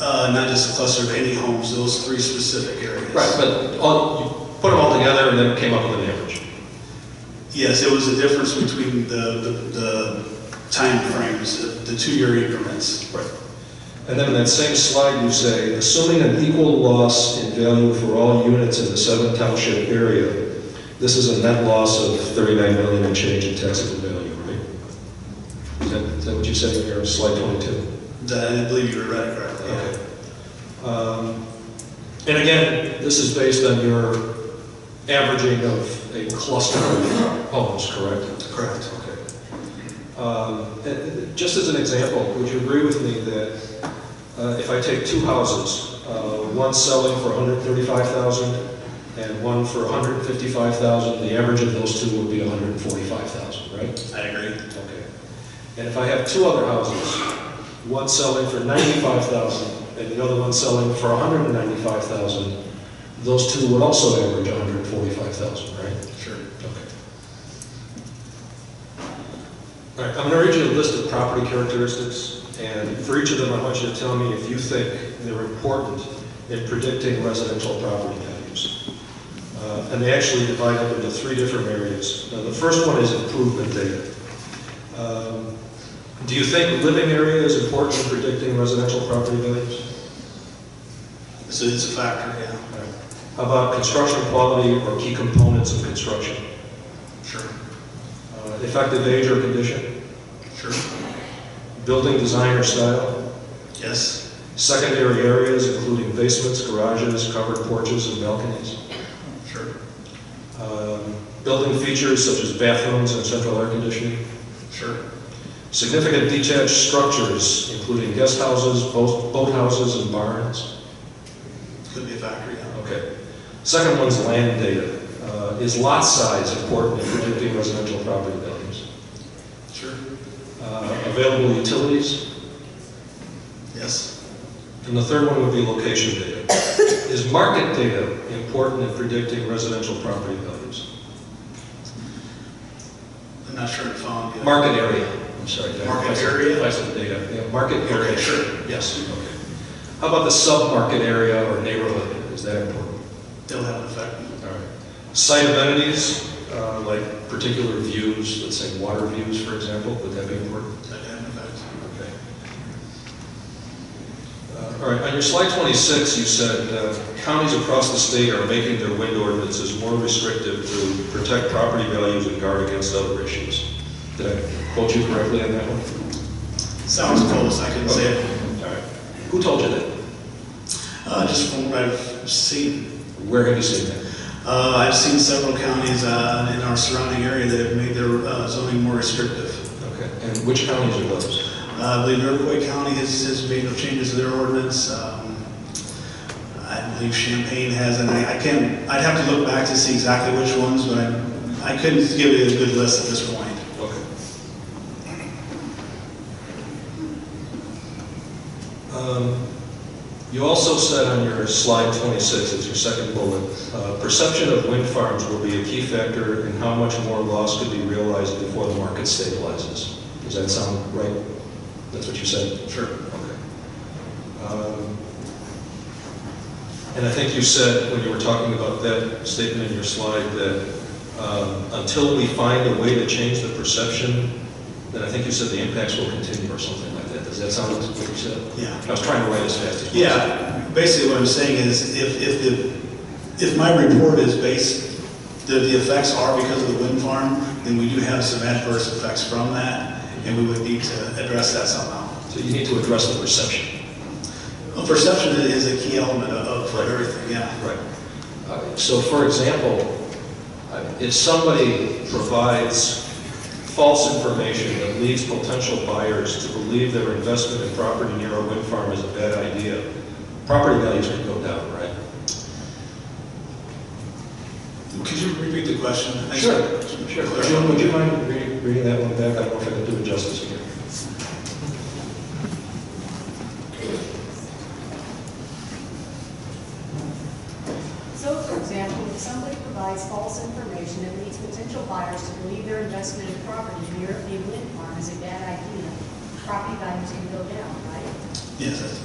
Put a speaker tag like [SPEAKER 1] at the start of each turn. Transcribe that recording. [SPEAKER 1] Uh, not just a cluster of any homes, those three specific areas.
[SPEAKER 2] Right, but all, you put them all together and then came up with an average.
[SPEAKER 1] Yes, it was a difference between the, the, the timeframes, the- the two-year increments.
[SPEAKER 2] Right.
[SPEAKER 3] And then in that same slide, you say, assuming an equal loss in value for all units in the seven township area, this is a net loss of 39 million and change in taxable value, right? Is that, is that what you said in your slide 22?
[SPEAKER 1] That, I believe you were right, correctly.
[SPEAKER 3] Okay. Um, And again, this is based on your averaging of a cluster of homes, correct?
[SPEAKER 1] Correct.
[SPEAKER 3] Okay. Um, and- and Just as an example, would you agree with me that uh, if I take two houses, uh, one selling for 135,000 and one for 155,000, the average of those two would be 145,000, right?
[SPEAKER 1] I agree.
[SPEAKER 3] Okay. And if I have two other houses, one selling for 95,000 and the other one selling for 195,000, those two would also average 145,000, right?
[SPEAKER 1] Sure.
[SPEAKER 3] Okay. All right, I'm going to read you a list of property characteristics, and for each of them, I want you to tell me if you think they're important in predicting residential property values. Uh, And they actually divide up into three different areas. Now, the first one is improvement data. Um, Do you think living area is important in predicting residential property values?
[SPEAKER 1] So it's a factor, yeah.
[SPEAKER 3] All right. How about construction quality or key components of construction?
[SPEAKER 1] Sure,
[SPEAKER 3] Uh, Effective age or condition?
[SPEAKER 1] sure.
[SPEAKER 3] building design or style,
[SPEAKER 1] Yes,
[SPEAKER 3] secondary areas including basements, garages, covered porches, and balconies,
[SPEAKER 1] sure,
[SPEAKER 3] um, building features such as bathrooms and central air conditioning,
[SPEAKER 1] sure,
[SPEAKER 3] significant detached structures including guest houses, boat boathouses, and barns.
[SPEAKER 1] could be a factor, yeah.
[SPEAKER 3] Okay. Second one's land data. Uh, Is lot size important in predicting residential property values?
[SPEAKER 1] Sure,
[SPEAKER 3] Uh, Available utilities,
[SPEAKER 1] yes,
[SPEAKER 3] And the third one would be location data. Is market data important in predicting residential property values?
[SPEAKER 1] I'm not sure if I found you.
[SPEAKER 3] Market area, I'm sorry. did I
[SPEAKER 1] Market
[SPEAKER 3] place it-
[SPEAKER 1] area?
[SPEAKER 3] place it data, yeah, market
[SPEAKER 1] Okay,
[SPEAKER 3] area.
[SPEAKER 1] sure.
[SPEAKER 3] Yes, okay. How about the sub-market area or neighborhood, is that important?
[SPEAKER 1] They'll have an effect,
[SPEAKER 3] All right. Site amenities, uh, like particular views, let's say water views, for example, would that be important?
[SPEAKER 1] that have an effect.
[SPEAKER 3] Okay. Uh, All right, on your slide 26, you said uh, counties across the state are making their wind ordinances more restrictive to protect property values and guard against other issues. Did I quote you correctly on that one?
[SPEAKER 1] Sounds close, I can say it.
[SPEAKER 3] All right. Who told you that?
[SPEAKER 1] Uh, just from what I've seen,
[SPEAKER 3] Where have you seen that?
[SPEAKER 1] uh, I've seen several counties, uh, in our surrounding area that have made their uh, zoning more restrictive.
[SPEAKER 3] Okay, and which counties are those?
[SPEAKER 1] Uh, I believe Iroquois County has, has made no changes to their ordinance. Um, I believe Champaign has, and I I can't, I'd have to look back to see exactly which ones, but I, I couldn't give you a good list at this point.
[SPEAKER 3] Okay. Um, You also said on your slide 26, it's your second bullet, uh, perception of wind farms will be a key factor in how much more loss could be realized before the market stabilizes. Does that sound right? That's what you said?
[SPEAKER 1] Sure.
[SPEAKER 3] Okay. Um, And I think you said, when you were talking about that statement in your slide, that um, until we find a way to change the perception, then I think you said the impacts will continue or something like that. Does that sound like what you said?
[SPEAKER 1] Yeah.
[SPEAKER 3] I was trying to write as fast as possible.
[SPEAKER 1] Yeah, basically what I'm saying is if, if the, if my report is based, that the effects are because of the wind farm, then we do have some adverse effects from that, and we would need to address that somehow.
[SPEAKER 3] So you need to address the perception.
[SPEAKER 1] Well, Perception is a key element of of everything, yeah.
[SPEAKER 3] Right. Uh, So for example, uh, if somebody provides false information that leads potential buyers to believe their investment in property near a wind farm is a bad idea, property values can go down, right?
[SPEAKER 1] Could you repeat the question? I-
[SPEAKER 3] Jim, would you mind re- reading that one back? I don't know if I can do it justice here.
[SPEAKER 4] So, for example, if somebody provides false information that leads potential buyers to believe their investment in property near a wind farm is a bad idea, property values can go down, right?
[SPEAKER 1] Yes, that's-